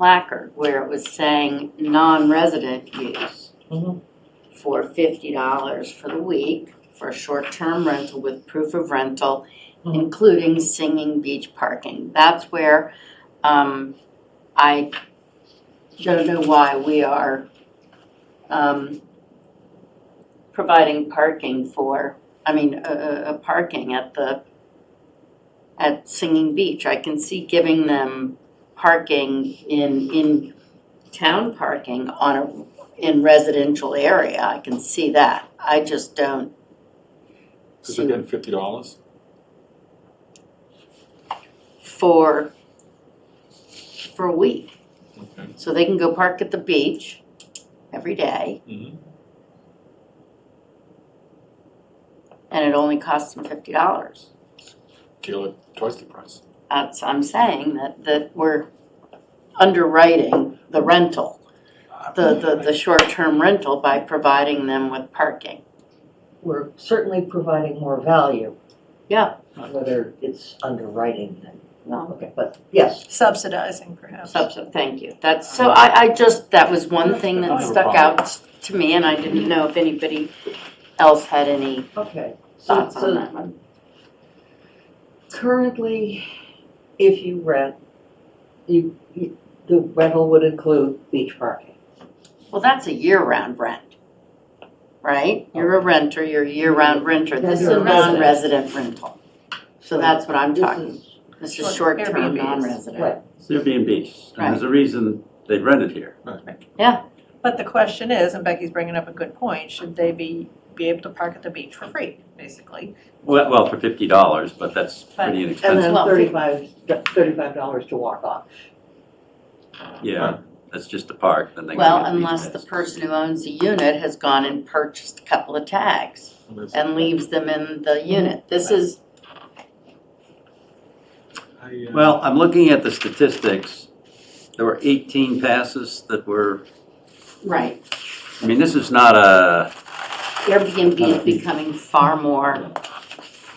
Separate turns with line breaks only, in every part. placard where it was saying non-resident use
Mhm.
for fifty dollars for the week for a short-term rental with proof of rental,
Mhm.
including singing beach parking. That's where, um, I don't know why we are, um, providing parking for, I mean, a, a, a parking at the, at Singing Beach. I can see giving them parking in, in town parking on a, in residential area. I can see that. I just don't.
Because they're
see-
getting fifty dollars?
for, for a week.
Okay.
So they can go park at the beach every day,
Mhm.
and it only costs them fifty dollars.
Deal it twice the price.
That's, I'm saying that, that we're underwriting the rental, the, the, the short-term rental by providing them with parking.
We're certainly providing more value.
Yeah.
Whether it's underwriting then,
No,
okay, but yes,
Subsidizing perhaps.
subset, thank you. That's, so I, I just, that was one thing that stuck out to me, and I didn't know if anybody else had any
okay. So,
thoughts on
so
that one.
currently, if you rent, you, you- the rental would include beach parking.
Well, that's a year-round rent, right? You're a renter, you're a year-round renter. This is
You're
a
a resident.
non-resident rental. So that's what I'm
This
talking,
is-
this is
Short-
short-term,
Airbnbs.
non-resident.
Right.
It's Airbnb. And there's a reason they rented here.
But the question is, and Becky's bringing up a good point, should they be, be able to park at the beach for free, basically?
Well, well, for fifty dollars, but that's pretty
And
inexpensive.
then
Well,
thirty-five, thirty-five dollars to walk off.
Yeah, that's just the park, then they go
Well,
to the beach
unless the
pass.
person who owns the unit has gone and purchased a couple of tags and leaves them in the unit. This is,
Well, I'm looking at the statistics. There were eighteen passes that were,
right,
I mean, this is not a,
Airbnb is becoming far more,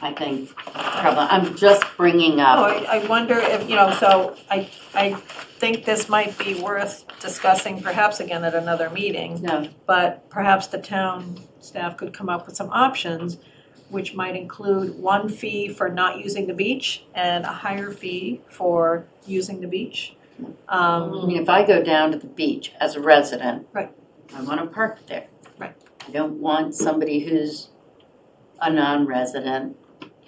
I think, prevalent. I'm just bringing
Oh,
up,
I, I wonder if, you know, so I, I think this might be worth discussing perhaps again at another meeting.
no,
But perhaps the town staff could come up with some options, which might include one fee for not using the beach and a higher fee for using the beach.
I
Um,
mean, if I go down to the beach as a resident.
Right.
I wanna park there.
Right.
I don't want somebody who's a non-resident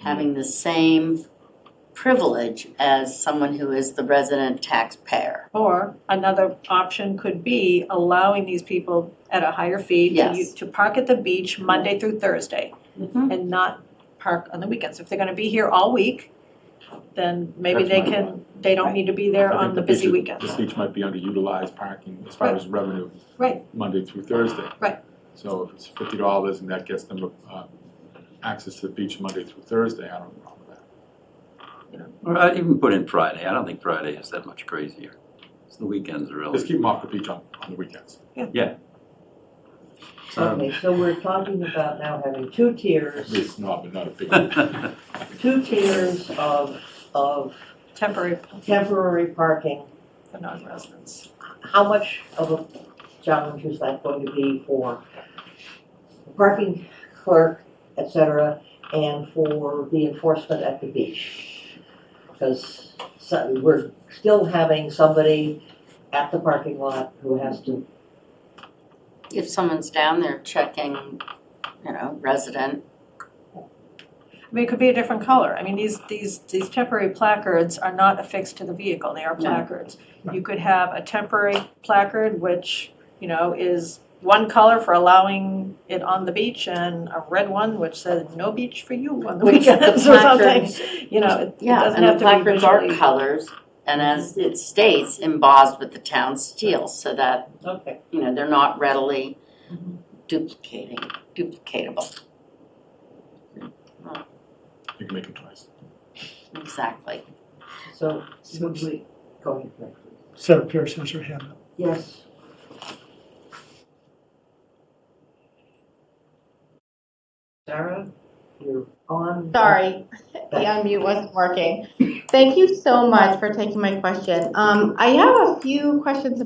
having the same privilege as someone who is the resident taxpayer.
Or another option could be allowing these people at a higher fee to
Yes.
u- to park at the beach Monday through Thursday
Mhm.
and not park on the weekends. If they're gonna be here all week, then maybe
That's
they
my
can, they don't need to be there on the busy weekends.
This beach might be underutilized parking as far as revenue.
Right.
Monday through Thursday.
Right.
So if it's fifty dollars and that gets them, uh, access to the beach Monday through Thursday, I don't have a problem with that.
or I'd even put in Friday. I don't think Friday is that much crazier. It's the weekends are
Just
really.
keep them off the beach on, on the weekends.
um,
Okay, so we're talking about now having two
At
tiers,
least, no, but not a big. one.
two tiers of, of
Temporary
temporary parking.
for non-residents.
How much of a challenge is that going to be for the parking clerk, et cetera, and for the enforcement at the beach? Because so, we're still having somebody at the parking lot who has to,
If someone's down there checking, you know, resident,
I mean, it could be a different color. I mean, these, these, these temporary placards are not affixed to the vehicle, they are
No.
placards. You could have a temporary placard, which, you know, is one color for allowing it on the beach and a red one which says no beach for you on the
Which the
weekends or something.
placards-
You know, it- it
yeah,
doesn't
and the
have to be
placards are
visually.
colors, and as it states, embossed with the town seal, so that,
okay,
you know, they're not readily Mm-hmm.
Mhm.
duplicating, duplicatable,
You can make them twice.
exactly.
so would we, go ahead, Rick.
Sarah Pierce has her hand up.
Yes. Sarah, you're on.
Sorry, The unmute wasn't working. Thank you so much for taking my question. Um, I have a few questions